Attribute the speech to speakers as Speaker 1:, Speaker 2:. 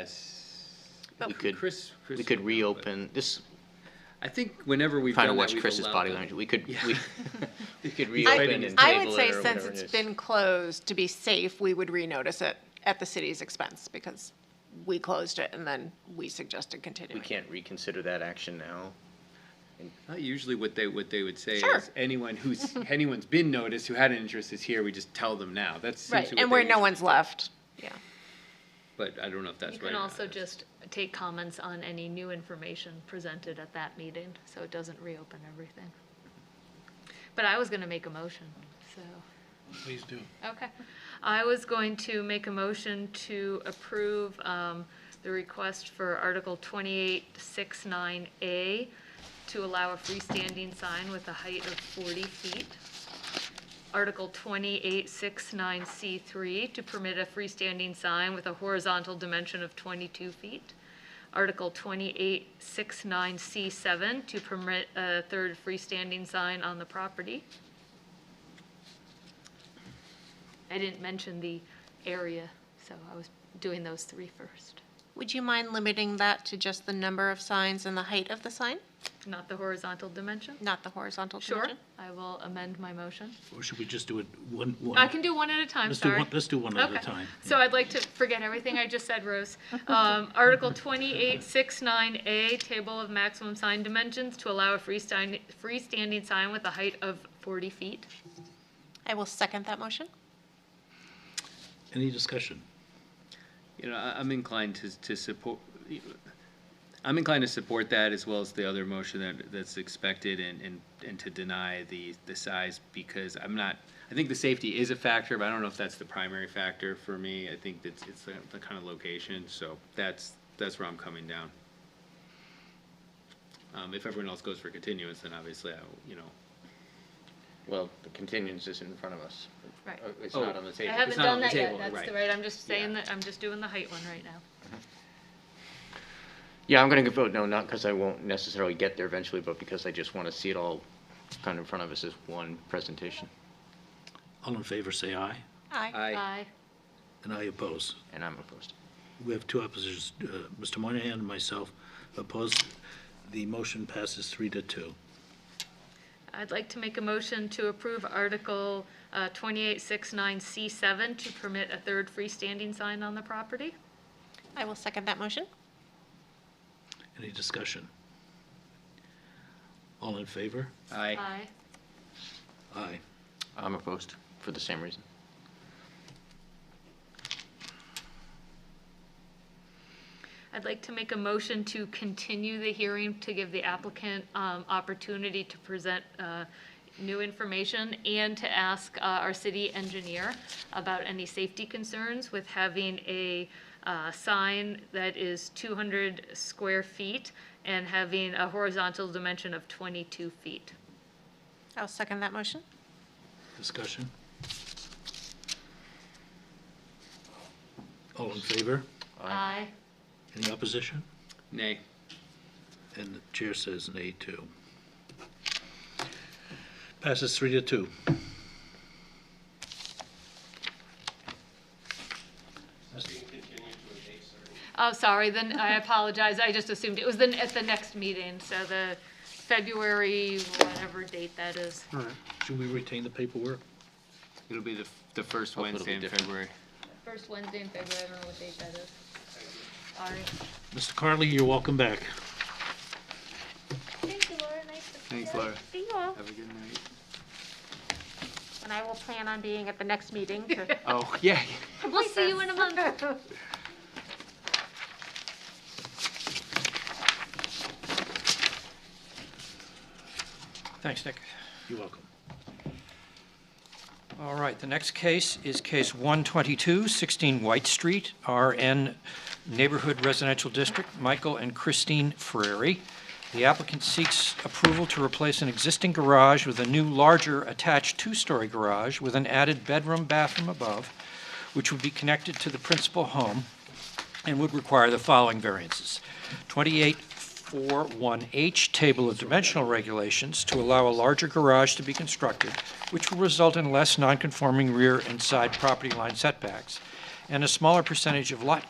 Speaker 1: yes.
Speaker 2: We could,
Speaker 1: Chris- Chris
Speaker 2: we could
Speaker 1: would know, but-
Speaker 2: reopen, this,
Speaker 1: I think whenever we've
Speaker 2: trying to
Speaker 1: done that,
Speaker 2: watch
Speaker 1: we've
Speaker 2: Chris's
Speaker 1: allowed
Speaker 2: body
Speaker 1: that.
Speaker 2: language, we could,
Speaker 1: Yeah.
Speaker 2: we, we could
Speaker 1: I-
Speaker 2: reopen and
Speaker 1: I
Speaker 3: I would
Speaker 2: table
Speaker 3: say
Speaker 2: it or
Speaker 3: since
Speaker 2: whatever it
Speaker 3: it's
Speaker 2: is.
Speaker 3: been closed, to be safe, we would renotice it at the city's expense because we closed it and then we suggested
Speaker 2: We
Speaker 3: continuing.
Speaker 2: can't reconsider that action now.
Speaker 1: Not usually what they, what they would say
Speaker 3: Sure.
Speaker 1: is anyone who's, anyone's been noticed who had an interest is here, we just tell them now. That's
Speaker 3: Right,
Speaker 1: essentially
Speaker 3: and
Speaker 1: what
Speaker 3: where
Speaker 1: they
Speaker 3: no
Speaker 1: usually
Speaker 3: one's
Speaker 1: do.
Speaker 3: left, yeah.
Speaker 1: But I don't know if that's
Speaker 4: You
Speaker 1: right.
Speaker 4: can
Speaker 1: or not.
Speaker 4: also just take comments on any new information presented at that meeting, so it doesn't reopen everything. But I was gonna make a motion, so.
Speaker 5: Please do.
Speaker 4: Okay. I was going to make a motion to approve um, the request for Article 2869A to allow a freestanding sign with a height of 40 feet. Article 2869C3 to permit a freestanding sign with a horizontal dimension of 22 feet. Article 2869C7 to permit a third freestanding sign on the property. I didn't mention the area, so I was doing those three first.
Speaker 3: Would you mind limiting that to just the number of signs and the height of the sign,
Speaker 4: Not the horizontal dimension?
Speaker 3: not the horizontal
Speaker 4: Sure,
Speaker 3: dimension?
Speaker 4: I will amend my motion.
Speaker 5: Or should we just do it one, one?
Speaker 4: I can do one at a time,
Speaker 5: Let's do
Speaker 4: sorry.
Speaker 5: one, let's do one at a
Speaker 4: Okay.
Speaker 5: time.
Speaker 4: So I'd like to forget everything I just said, Rose. Um, Article 2869A, Table of Maximum Sign Dimensions, to allow a freestanding, freestanding sign with a height of 40 feet.
Speaker 3: I will second that motion.
Speaker 5: Any discussion?
Speaker 1: You know, I, I'm inclined to, to support, I'm inclined to support that as well as the other motion that, that's expected and, and, and to deny the, the size because I'm not, I think the safety is a factor, but I don't know if that's the primary factor for me. I think that's, it's the, the kind of location, so that's, that's where I'm coming down. Um, if everyone else goes for continuance, then obviously I, you know,
Speaker 2: Well, the continuance is in front of us.
Speaker 4: Right.
Speaker 2: Uh, It's
Speaker 1: Oh.
Speaker 2: not on the
Speaker 4: I
Speaker 2: table.
Speaker 4: haven't
Speaker 1: not on
Speaker 4: done
Speaker 1: the
Speaker 4: that yet,
Speaker 1: table,
Speaker 4: that's
Speaker 1: right.
Speaker 4: the right, I'm just saying
Speaker 1: Yeah.
Speaker 4: that, I'm just doing the height one right now.
Speaker 2: Yeah, I'm gonna vote no, not because I won't necessarily get there eventually, but because I just wanna see it all kind of in front of us as one presentation.
Speaker 5: All in favor, say aye,
Speaker 3: Aye.
Speaker 1: I,
Speaker 4: Aye.
Speaker 5: and I oppose.
Speaker 2: And I'm opposed.
Speaker 5: We have two oppositions, uh, Mr. Moynihan and myself opposed. The motion passes three to two.
Speaker 4: I'd like to make a motion to approve Article uh, 2869C7 to permit a third freestanding sign on the property.
Speaker 3: I will second that motion.
Speaker 5: Any discussion? All in favor?
Speaker 1: I,
Speaker 4: Aye.
Speaker 5: Aye.
Speaker 2: I'm opposed for the same reason.
Speaker 4: I'd like to make a motion to continue the hearing to give the applicant um, opportunity to present uh, new information and to ask uh, our city engineer about any safety concerns with having a uh, sign that is 200 square feet and having a horizontal dimension of 22 feet.
Speaker 3: I'll second that motion.
Speaker 5: Discussion? All in favor?
Speaker 4: Aye.
Speaker 5: Any opposition?
Speaker 1: nay.
Speaker 5: And the chair says nay too. Passes three to two.
Speaker 4: Oh, sorry, then I apologize, I just assumed, it was then at the next meeting, so the February, whatever date that is.
Speaker 5: All right. Should we retain the paperwork?
Speaker 1: It'll be the, f- the first
Speaker 2: Hope it'll be
Speaker 1: Wednesday in
Speaker 2: different.
Speaker 1: February.
Speaker 4: First Wednesday in February, I don't know what date that is. Sorry.
Speaker 5: Mr. Carley, you're welcome back.
Speaker 3: Thank you, Laura. Nice to
Speaker 1: Thanks, Laura.
Speaker 3: see you all.
Speaker 1: Have a good night.
Speaker 3: And I will plan on being at the next meeting to
Speaker 1: Oh, yeah.
Speaker 4: We'll see you in a month.
Speaker 6: Thanks, Nick.
Speaker 5: You're welcome.
Speaker 6: All right, the next case is case 122, 16 White Street, RN Neighborhood Residential District, Michael and Christine Ferrari. The applicant seeks approval to replace an existing garage with a new, larger, attached two-story garage with an added bedroom, bathroom above, which would be connected to the principal home and would require the following variances. 2841H, Table of Dimensional Regulations, to allow a larger garage to be constructed, which will result in less nonconforming rear and side property line setbacks, and a smaller percentage of lot